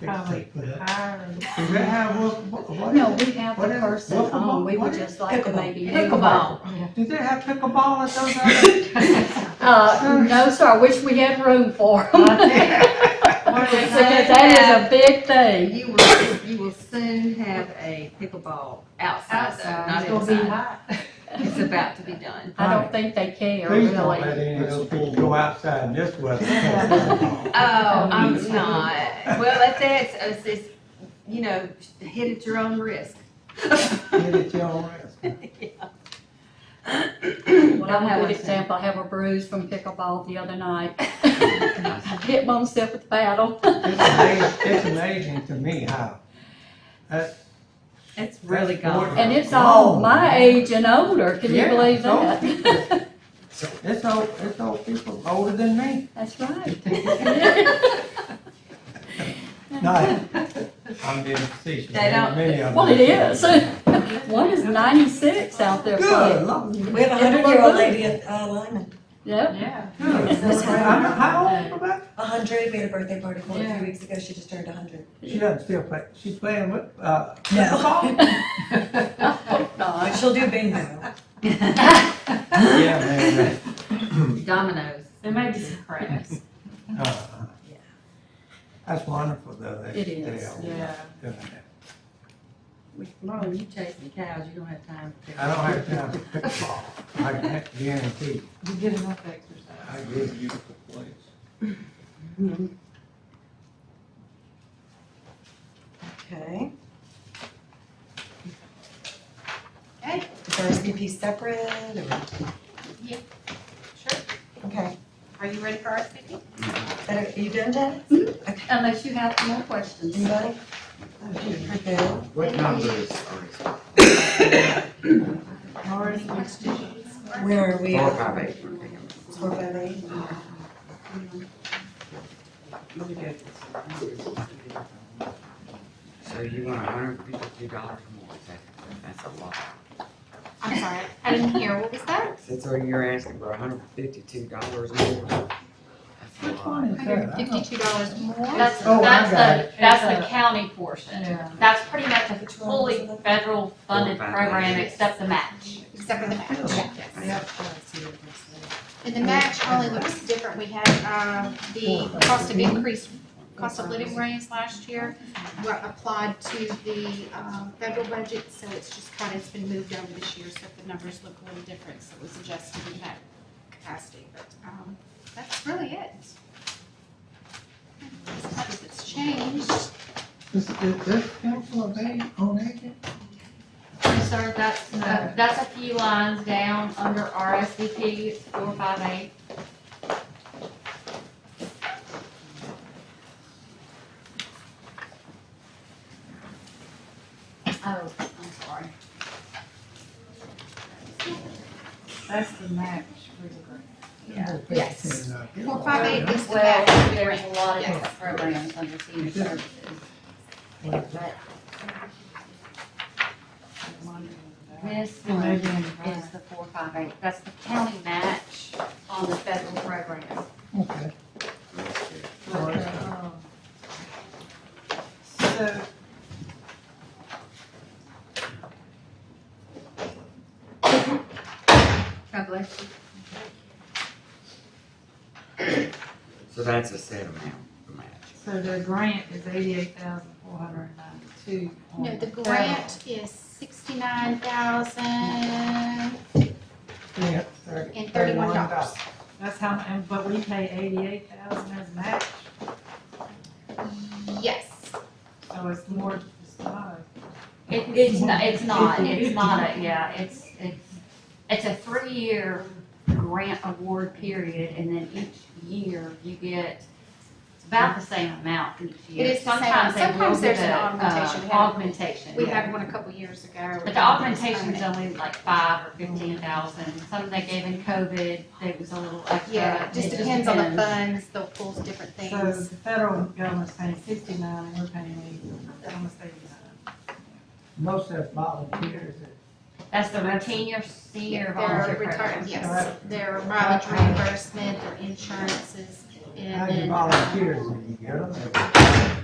probably for that. hire and Does that have what, what? what No, is it? we have the What is- person what's the mo- on, we what would is- just like to maybe. Pickleball. Did they have pickleball at those other? Uh, no, sir, I wish we had room for them. What they Because that is have- a big thing. You will, you will soon have a pickleball outside though, outside, not it's gonna be inside. hot. It's about to be done. I don't think they care, Please don't let really. any of those people go outside in this weather. Oh, I'm not. Well, if that's, it's, it's, you know, hit at your own risk. Get it your rest. Well, I'm Don't a have good one. example, I have a bruise from pickleball the other night. I Hit myself with the paddle. It's amazing, it's amazing to me how, uh, that's, It's really That's more- gone. And it's all my age and older, can you Yeah, believe so- that? it's old, it's old people older than me. That's right. No, I'm being facetious. They don't- Many of Well, them. it is. One is ninety-six out there Good, playing. Lord. We have a hundred-year-old lady at uh, Lyman, Yep, Yeah. Good. I'm, how old about? a hundred, we had a birthday party for her a Yeah. few weeks ago, she just turned a hundred. She doesn't still play, she's playing with, uh, No, pickleball? but she'll do bingo. Yeah, man, man. Dominoes. There may be some cracks, Uh-huh. That's wonderful though. that It they is, all yeah. doing that. Lauren, you chasing cows, you don't have time. I don't have time for pickleball. I can guarantee. you. You get enough exercise. I agree. beautiful place. Okay. Okay, is our SPP separate or? Yeah. Sure. Okay, Are you ready for our speaking? Better- are you done, Janice? unless you have more questions. Anybody? Okay, You're good. What number is RSVP? Where are we? Four, at? five, eight. Four, five, eight? So you want hundred and fifty-two dollars more, is that- that's a lot. I'm sorry, I didn't hear, what was that? Since all you're asking for hundred and fifty-two dollars more, that's a Which lot. one is that? I don't- Fifty-two dollars more? That's, Oh, I that's got the, that's the county portion. Yeah. That's pretty much a Which one was fully it? federal funded Four, five, program eight. except the match. except for the match. Yeah, I see what you're saying. And the match only looks different. We had, uh, the cost of increase, cost of living raise last year were applied to the, um, federal budget, so it's just kind of, it's been moved over this year, so the numbers look a little different, so it was adjusted in that capacity, but, um, that's really it. As much as it's changed, Is, is this council of age, on agent? Sir, that's, uh, that's a few lines down under RSVP, it's four five eight. Oh, I'm sorry. That's the match for the grant. Yes. Four, four, five, eight is the Well, match. there's a lot of different Yes. programs under senior services. This one Maybe is in five. the four five eight, that's the county match on the federal program. Okay. Um, So. God bless you. So that's a set amount, the match. So the grant is eighty-eight thousand four hundred and ninety-two. No, the grant is sixty-nine thousand Yeah. and thirty-one dollars. That's how, and, but we pay eighty-eight thousand as match, Yes, so it's more, it's not It, it's not, it's not, it's not a, yeah, it's, it's, it's a three-year grant award period, and then each year you get it's about the same amount each year. is the same. Sometimes they will Sometimes there's give an a, uh, augmentation. We have- Augmentation, we yeah. had one a couple years ago. But the augmentation's only like five or fifteen thousand, some they gave in COVID, it was a little extra. Yeah, it just depends on the funds, they'll pull different a. So things. the federal government's paying sixty-nine, and we're paying eighty, almost eighty-nine. Most of us volunteers. That's the routine your senior volunteer Their retirement, program. yes, their mileage reimbursement, their insurances, How and you then. volunteers when you get them?